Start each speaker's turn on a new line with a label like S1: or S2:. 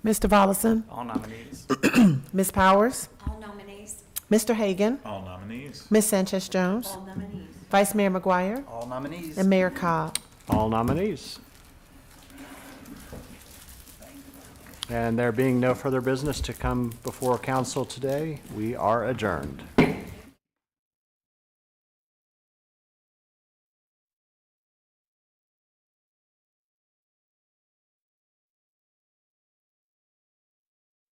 S1: Mr. Volleson,
S2: All nominees.
S1: Ms. Powers,
S3: All nominees.
S1: Mr. Hagan,
S4: All nominees.
S1: Ms. Sanchez Jones,
S3: All nominees.
S1: Vice Mayor McGuire,
S2: All nominees.
S1: and Mayor Cobb.
S5: All nominees. And there being no further business to come before council today, we are adjourned.